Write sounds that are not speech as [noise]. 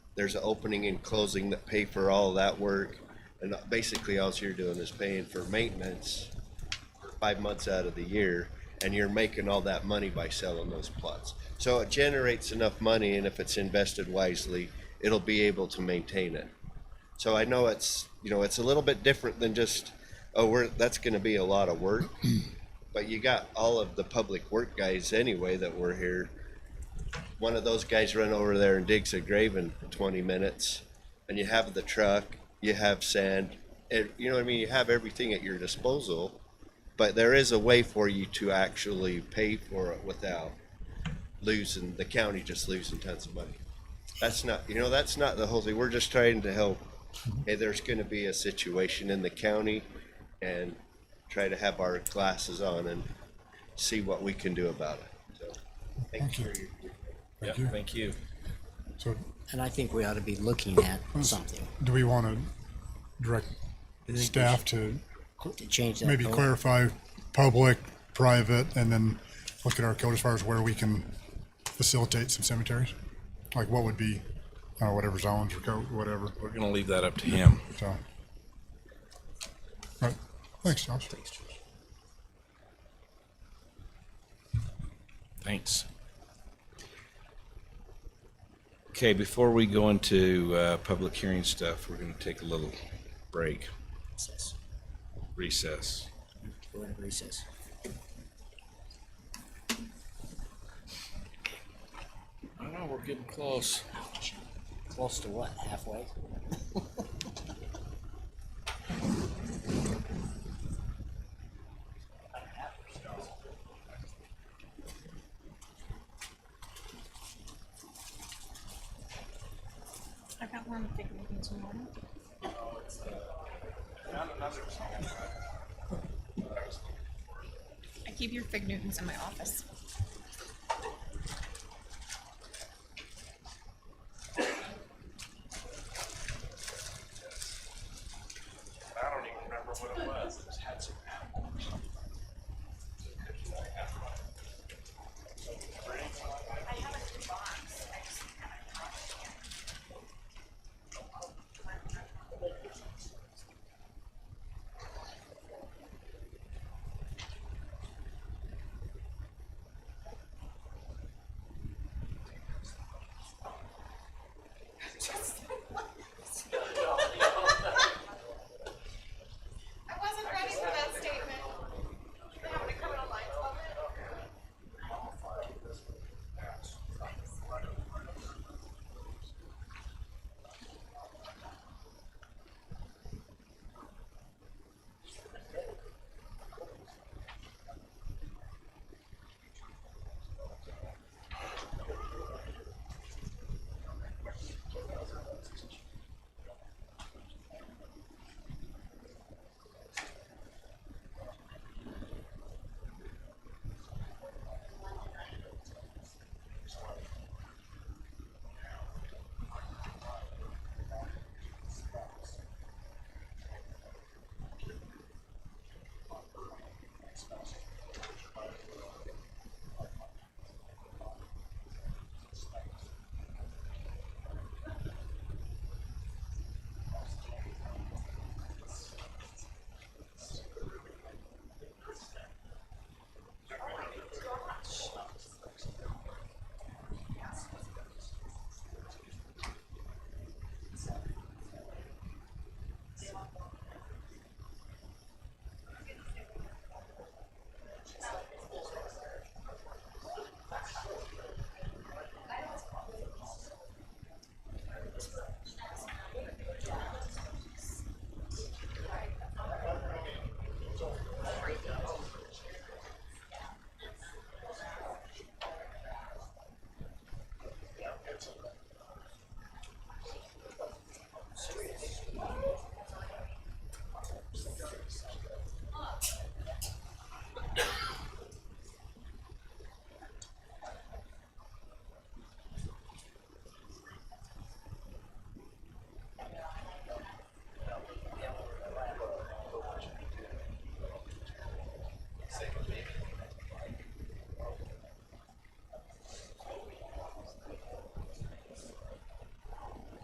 there's an opening and closing that pay for all of that work. And basically, all you're doing is paying for maintenance for five months out of the year, and you're making all that money by selling those plots. So it generates enough money, and if it's invested wisely, it'll be able to maintain it. So I know it's, you know, it's a little bit different than just, oh, we're, that's gonna be a lot of work. [clears throat] But you got all of the public work guys anyway that were here. One of those guys run over there and digs a grave in twenty minutes. And you have the truck, you have sand, and, you know what I mean, you have everything at your disposal. But there is a way for you to actually pay for it without losing, the county just losing tons of money. That's not, you know, that's not the whole thing. We're just trying to help. Hey, there's gonna be a situation in the county and try to have our glasses on and see what we can do about it. So, thank you for your. Thank Yeah, you. thank you. So And I think we ought to be looking at something do we want to direct staff to to change that. maybe goal. clarify public, private, and then look at our code as far as where we can facilitate some cemeteries? Like what would be, I don't know, whatever zones or code, whatever, We're gonna leave that up to him. so. Right, thanks, Josh. Thanks. Okay, before we go into uh, public hearing stuff, we're gonna take a little break, Recess. recess. We're in recess. I know, we're getting close. Close to what? Halfway? I got one thing we can zoom on. I keep your fig Newtons in my office.